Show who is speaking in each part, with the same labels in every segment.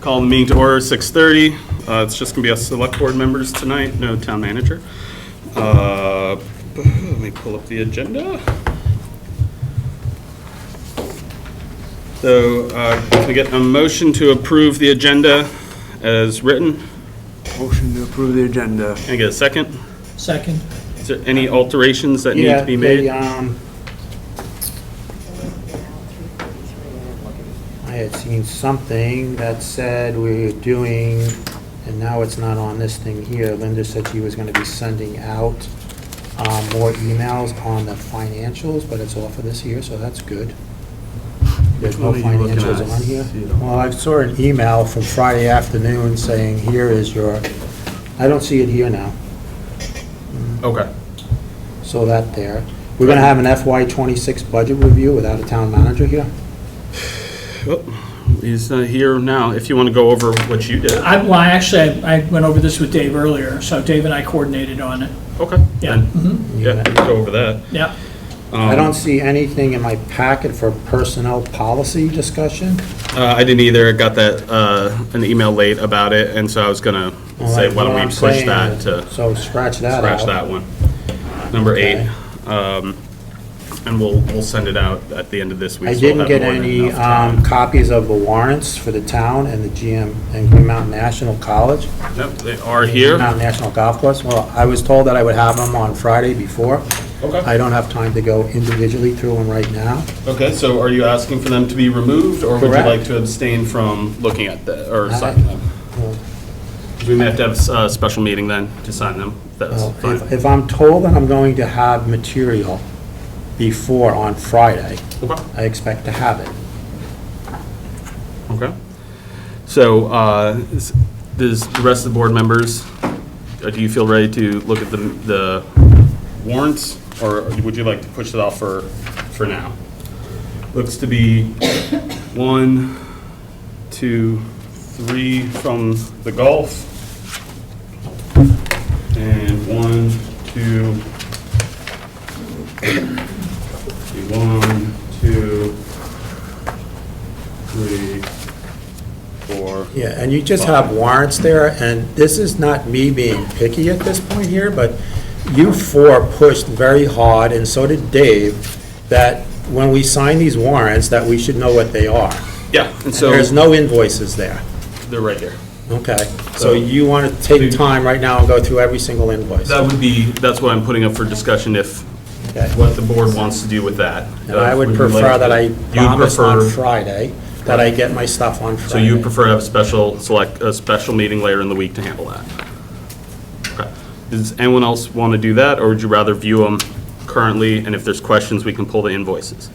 Speaker 1: Call the meeting to order, 6:30. Uh, It's just going to be us select board members tonight, no town manager. Uh, Let me pull up the agenda. So uh, can I get a motion to approve the agenda as written?
Speaker 2: Motion to approve the agenda.
Speaker 1: Can I get a second?
Speaker 3: Second.
Speaker 1: Is there any alterations that need to be made?
Speaker 4: um, I had seen something that said we were doing, and now it's not on this thing here. Linda said she was gonna be sending out um, more emails on the financials, but it's all for this year, so that's good. There's no
Speaker 1: Which one are you looking
Speaker 4: financials
Speaker 1: at?
Speaker 4: on here.
Speaker 2: See it all.
Speaker 4: Well, I saw an email from Friday afternoon saying, here is your, I don't see it here now.
Speaker 1: Okay.
Speaker 4: So that there. We're gonna have an FY twenty-six budget review without a town manager here?
Speaker 1: He's uh, here now, if you want to go over what you did.
Speaker 3: I, well, I actually, I I went over this with Dave earlier, so Dave and I coordinated on it.
Speaker 1: Okay.
Speaker 3: Yeah.
Speaker 1: then,
Speaker 3: mhm,
Speaker 1: Yeah, we can go over that.
Speaker 3: Yeah.
Speaker 4: I
Speaker 1: Um,
Speaker 4: don't see anything in my packet for personnel policy discussion.
Speaker 1: Uh, I didn't either, I got that, uh, an email late about it, and so I was gonna
Speaker 4: Well,
Speaker 1: say,
Speaker 4: that's
Speaker 1: why don't
Speaker 4: what
Speaker 1: we
Speaker 4: I'm
Speaker 1: push
Speaker 4: saying.
Speaker 1: that to
Speaker 4: So scratch that out.
Speaker 1: scratch that one? Number eight,
Speaker 4: Okay.
Speaker 1: um, and we'll, we'll send it out at the end of this week.
Speaker 4: I
Speaker 1: so we'll
Speaker 4: didn't
Speaker 1: have
Speaker 4: get
Speaker 1: more than
Speaker 4: any
Speaker 1: enough time.
Speaker 4: um, copies of the warrants for the town and the GM and Green Mountain National College.
Speaker 1: Nope, they are
Speaker 4: Green
Speaker 1: here,
Speaker 4: Mountain National Golf Course. Well, I was told that I would have them on Friday before.
Speaker 1: okay,
Speaker 4: I don't have time to go individually through them right now.
Speaker 1: okay, so are you asking for them to be removed, or would you
Speaker 4: Correct.
Speaker 1: like to abstain from looking at the, or
Speaker 4: I-
Speaker 1: signing them?
Speaker 4: Well,
Speaker 1: We may have to have a uh, special meeting then to sign them, that's
Speaker 4: Well,
Speaker 1: fine.
Speaker 4: If if I'm told that I'm going to have material before on Friday,
Speaker 1: Okay.
Speaker 4: I expect to have it.
Speaker 1: Okay. So, uh, is- does the rest of the board members, uh, do you feel ready to look at the the warrants? Or would you like to push it off for, for now? Looks to be one, two, three from the golf. And one, two, one, two, three, four.
Speaker 4: Yeah, and you just have warrants there, and this is not me being picky at this point here, but you four pushed very hard, and so did Dave, that when we sign these warrants, that we should know what they are.
Speaker 1: Yeah, and so,
Speaker 4: There's no invoices there,
Speaker 1: they're right here.
Speaker 4: okay? So you want to take time right now and go through every single invoice.
Speaker 1: That would be, that's what I'm putting up for discussion if,
Speaker 4: Okay.
Speaker 1: what the board wants to do with that.
Speaker 4: And I would
Speaker 1: you
Speaker 4: prefer
Speaker 1: like-
Speaker 4: that I
Speaker 1: you would
Speaker 4: promise on
Speaker 1: prefer-
Speaker 4: Friday that I get my stuff on Friday.
Speaker 1: So you prefer to have a special, select, a special meeting later in the week to handle that? Okay. Does anyone else want to do that, or would you rather view them currently, and if there's questions, we can pull the invoices?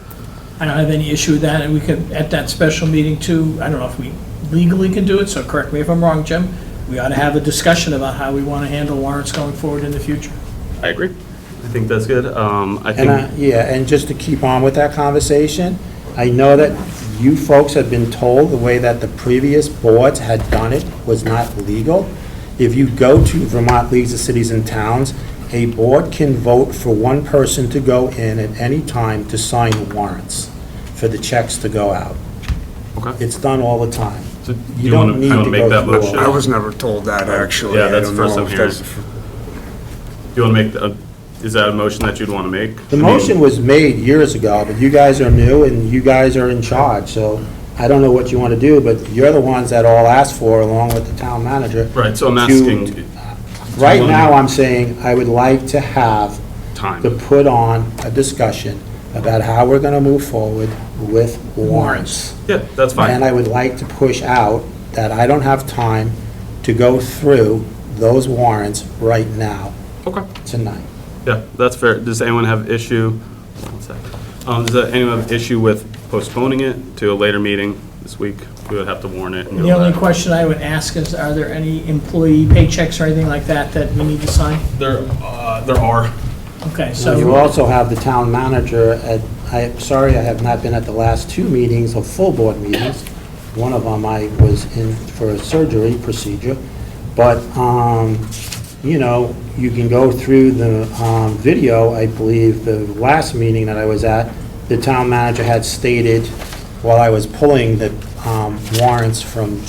Speaker 3: I don't have any issue with that, and we could, at that special meeting too, I don't know if we legally can do it, so correct me if I'm wrong, Jim, we ought to have a discussion about how we want to handle warrants going forward in the future.
Speaker 1: I agree. I think that's good. Um, I
Speaker 4: And I,
Speaker 1: think,
Speaker 4: yeah, and just to keep on with that conversation, I know that you folks have been told the way that the previous boards had done it was not legal. If you go to Vermont Leagues of Cities and Towns, a board can vote for one person to go in at any time to sign warrants for the checks to go out.
Speaker 1: okay.
Speaker 4: It's done all the time.
Speaker 1: So do
Speaker 4: you
Speaker 1: you
Speaker 4: don't
Speaker 1: want to,
Speaker 4: need to
Speaker 1: make
Speaker 4: go
Speaker 1: that
Speaker 4: through all
Speaker 1: motion?
Speaker 2: I was never told that, actually.
Speaker 1: Yeah,
Speaker 2: I
Speaker 1: that's
Speaker 2: don't
Speaker 1: first
Speaker 2: know
Speaker 1: I'm
Speaker 2: if
Speaker 1: hearing.
Speaker 2: that's-
Speaker 1: Do you want to make, the- uh, is that a motion that you'd want to make?
Speaker 4: The motion was made years ago, but you guys are new and you guys are in charge, so I don't know what you want to do, but you're the ones that all asked for along with the town manager.
Speaker 1: Right, so I'm
Speaker 4: to-
Speaker 1: asking
Speaker 4: Right
Speaker 1: wanna-
Speaker 4: now, I'm saying I would like to have
Speaker 1: time.
Speaker 4: to put on a discussion about how we're going to move forward with warrants.
Speaker 1: Yeah, that's
Speaker 4: And
Speaker 1: fine.
Speaker 4: I would like to push out that I don't have time to go through those warrants right now,
Speaker 1: Okay.
Speaker 4: tonight.
Speaker 1: Yeah, that's fair. Does anyone have issue? one sec. Um, does anyone have issue with postponing it to a later meeting this week? We would have to warn it. and
Speaker 3: The
Speaker 1: all
Speaker 3: only
Speaker 1: that.
Speaker 3: question I would ask is, are there any employee paychecks or anything like that that we need to sign?
Speaker 1: There, uh, there are.
Speaker 3: Okay,
Speaker 4: So You
Speaker 3: so,
Speaker 4: also have the town manager at, I'm sorry, I have not been at the last two meetings of full board meetings. One of them I was in for a surgery procedure, but, um, you know, you can go through the, um, video, I believe, the last meeting that I was at, the town manager had stated, while I was pulling the, um, warrants from